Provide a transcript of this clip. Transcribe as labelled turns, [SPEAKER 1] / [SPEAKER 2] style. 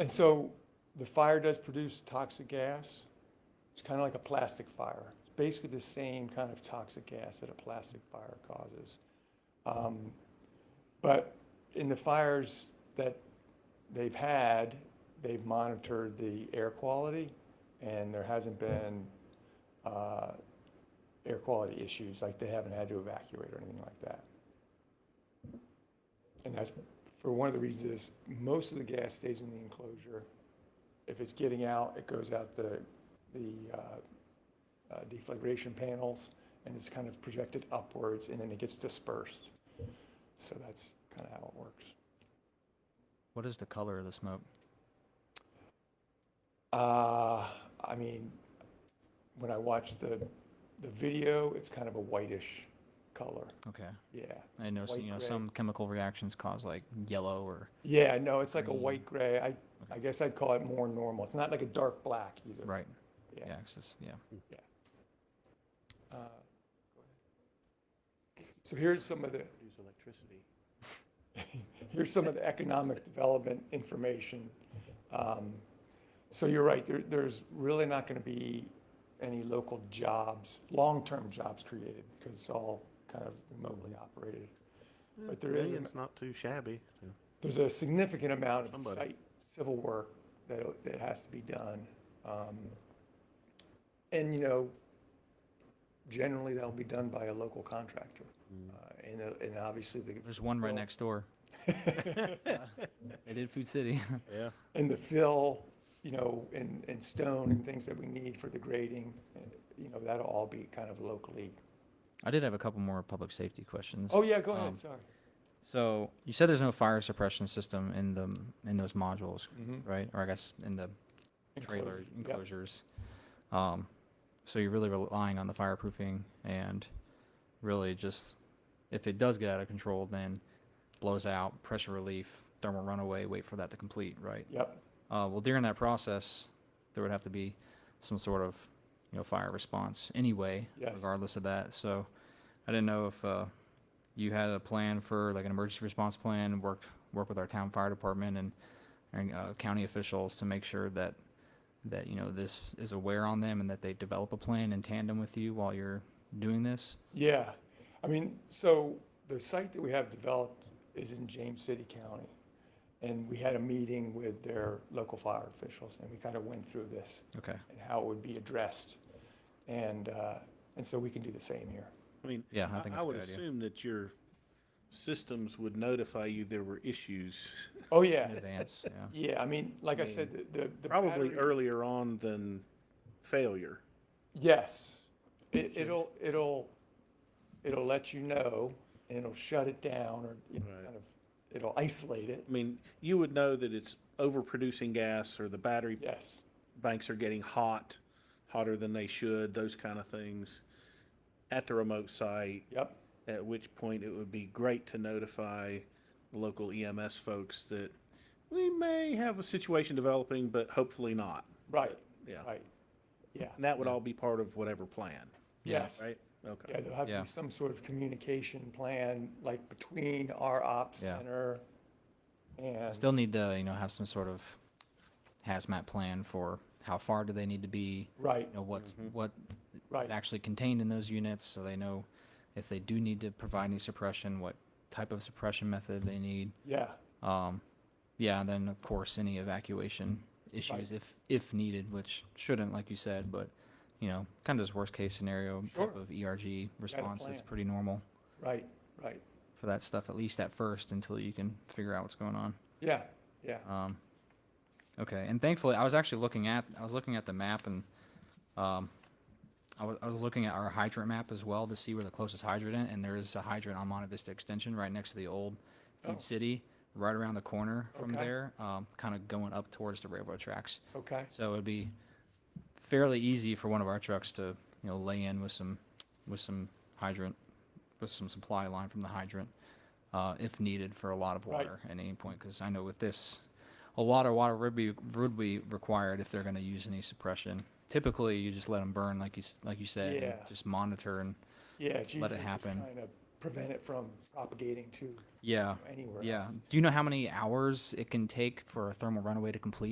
[SPEAKER 1] And so the fire does produce toxic gas. It's kind of like a plastic fire. It's basically the same kind of toxic gas that a plastic fire causes. Um, but in the fires that they've had, they've monitored the air quality, and there hasn't been uh, air quality issues. Like they haven't had to evacuate or anything like that. And that's for one of the reasons is most of the gas stays in the enclosure. If it's getting out, it goes out the, the uh, uh, deflagration panels and it's kind of projected upwards and then it gets dispersed. So that's kind of how it works.
[SPEAKER 2] What is the color of the smoke?
[SPEAKER 1] Uh, I mean, when I watch the, the video, it's kind of a whitish color.
[SPEAKER 2] Okay.
[SPEAKER 1] Yeah.
[SPEAKER 2] I know, s-
[SPEAKER 1] White
[SPEAKER 2] you know
[SPEAKER 1] gray.
[SPEAKER 2] some chemical reactions cause like yellow or
[SPEAKER 1] Yeah, no, it's like a
[SPEAKER 2] Green.
[SPEAKER 1] white gray. I, I guess I'd call it more normal. It's not like a dark black either.
[SPEAKER 2] right.
[SPEAKER 1] Yeah.
[SPEAKER 2] Yeah, 'cause it's- yeah.
[SPEAKER 1] Uh, So here's some of the,
[SPEAKER 3] Use electricity.
[SPEAKER 1] here's some of the economic development information. Um, So you're right, there, there's really not going to be any local jobs, long-term jobs created because it's all kind of remotely operated. But there
[SPEAKER 3] To me,
[SPEAKER 1] is a-
[SPEAKER 3] It's not too shabby. so.
[SPEAKER 1] There's a significant amount of
[SPEAKER 3] Somebody.
[SPEAKER 1] site civil work that, that has to be done. Um, And, you know, generally that'll be done by a local contractor. Uh, And, uh, and obviously the,
[SPEAKER 2] There's one right
[SPEAKER 1] Well-
[SPEAKER 2] next door. they did Food City.
[SPEAKER 3] Yeah.
[SPEAKER 1] and the fill, you know, and, and stone and things that we need for the grading, uh, you know, that'll all be kind of locally.
[SPEAKER 2] I did have a couple more public safety questions.
[SPEAKER 1] Oh, yeah, go
[SPEAKER 2] Um,
[SPEAKER 1] ahead, sorry.
[SPEAKER 2] So you said there's no fire suppression system in the in those modules,
[SPEAKER 1] Mhm.
[SPEAKER 2] right? Or I guess in the trailer
[SPEAKER 1] Enclosure, yep.
[SPEAKER 2] enclosures. Um, so you're really relying on the fireproofing and really just if it does get out of control, then blows out, pressure relief, thermal runaway, wait for that to complete, right?
[SPEAKER 1] Yep,
[SPEAKER 2] Uh, well, during that process, there would have to be some sort of, you know, fire response anyway,
[SPEAKER 1] Yes.
[SPEAKER 2] regardless of that. So, I didn't know if uh, you had a plan for like an emergency response plan, worked work with our town fire department and and uh, county officials to make sure that that you know this is aware on them and that they develop a plan in tandem with you while you're doing this.
[SPEAKER 1] yeah. I mean, so the site that we have developed is in James City County. And we had a meeting with their local fire officials and we kind of went through this
[SPEAKER 2] Okay.
[SPEAKER 1] and how it would be addressed. And, uh, and so we can do the same here.
[SPEAKER 3] I mean,
[SPEAKER 2] Yeah, I
[SPEAKER 3] I,
[SPEAKER 2] think
[SPEAKER 3] I
[SPEAKER 2] it's a
[SPEAKER 3] would
[SPEAKER 2] good idea.
[SPEAKER 3] assume that your systems would notify you there were issues,
[SPEAKER 1] Oh,
[SPEAKER 2] In
[SPEAKER 1] yeah,
[SPEAKER 2] advance. Yeah.
[SPEAKER 1] yeah. I mean, like I said, the- the. the
[SPEAKER 3] probably
[SPEAKER 1] battery-
[SPEAKER 3] earlier on than failure.
[SPEAKER 1] Yes. It, it'll, it'll, it'll let you know and it'll shut it down or, you know,
[SPEAKER 3] Right.
[SPEAKER 1] kind of, it'll isolate it.
[SPEAKER 3] I mean, you would know that it's overproducing gas or the battery
[SPEAKER 1] Yes.
[SPEAKER 3] banks are getting hot, hotter than they should, those kind of things at the remote site.
[SPEAKER 1] Yep.
[SPEAKER 3] at which point it would be great to notify the local EMS folks that we may have a situation developing, but hopefully not.
[SPEAKER 1] Right.
[SPEAKER 3] Yeah.
[SPEAKER 1] Right. Yeah.
[SPEAKER 3] And that would all be part of whatever plan,
[SPEAKER 2] Yeah,
[SPEAKER 1] Yes.
[SPEAKER 3] right?
[SPEAKER 1] Yeah,
[SPEAKER 3] Okay.
[SPEAKER 1] there'll have to
[SPEAKER 2] Yeah.
[SPEAKER 1] be some sort of communication plan, like between our ops
[SPEAKER 2] Yeah.
[SPEAKER 1] center and.
[SPEAKER 2] Still need to you know have some sort of hazmat plan for how far do they need to be
[SPEAKER 1] Right,
[SPEAKER 2] you know what's what is
[SPEAKER 1] Right.
[SPEAKER 2] actually contained in those units, so they know if they do need to provide any suppression, what type of suppression method they need.
[SPEAKER 1] yeah,
[SPEAKER 2] Um, yeah, and then of course any evacuation issues if if needed, which shouldn't, like you said, but you know, kind of this worst case scenario
[SPEAKER 1] Sure.
[SPEAKER 2] type of ERG response that's
[SPEAKER 1] plan.
[SPEAKER 2] pretty normal
[SPEAKER 1] right, right.
[SPEAKER 2] for that stuff, at least at first, until you can figure out what's going on.
[SPEAKER 1] Yeah, yeah,
[SPEAKER 2] Um, okay, and thankfully, I was actually looking at I was looking at the map, and um, I was I was looking at our hydrant map as well to see where the closest hydrant is, and there is a hydrant on Monte Vista Extension right next to the old Food
[SPEAKER 1] Oh.
[SPEAKER 2] City, right around the corner from
[SPEAKER 1] Okay.
[SPEAKER 2] there, um, kind of going up towards the railroad tracks.
[SPEAKER 1] okay,
[SPEAKER 2] So it'd be fairly easy for one of our trucks to, you know, lay in with some, with some hydrant, with some supply line from the hydrant, uh, if needed for a lot of
[SPEAKER 1] Right.
[SPEAKER 2] water at any point, because I know with this, a lot of water would be, would be required if they're gonna use any suppression. Typically, you just let them burn, like you, s- like you said, and
[SPEAKER 1] Yeah.
[SPEAKER 2] just monitor and,
[SPEAKER 1] yeah. it's
[SPEAKER 2] Let it
[SPEAKER 1] usually just
[SPEAKER 2] happen.
[SPEAKER 1] Trying to prevent it from propagating to
[SPEAKER 2] yeah,
[SPEAKER 1] anywhere else.
[SPEAKER 2] yeah. Do you know how many hours it can take for a thermal runaway to complete?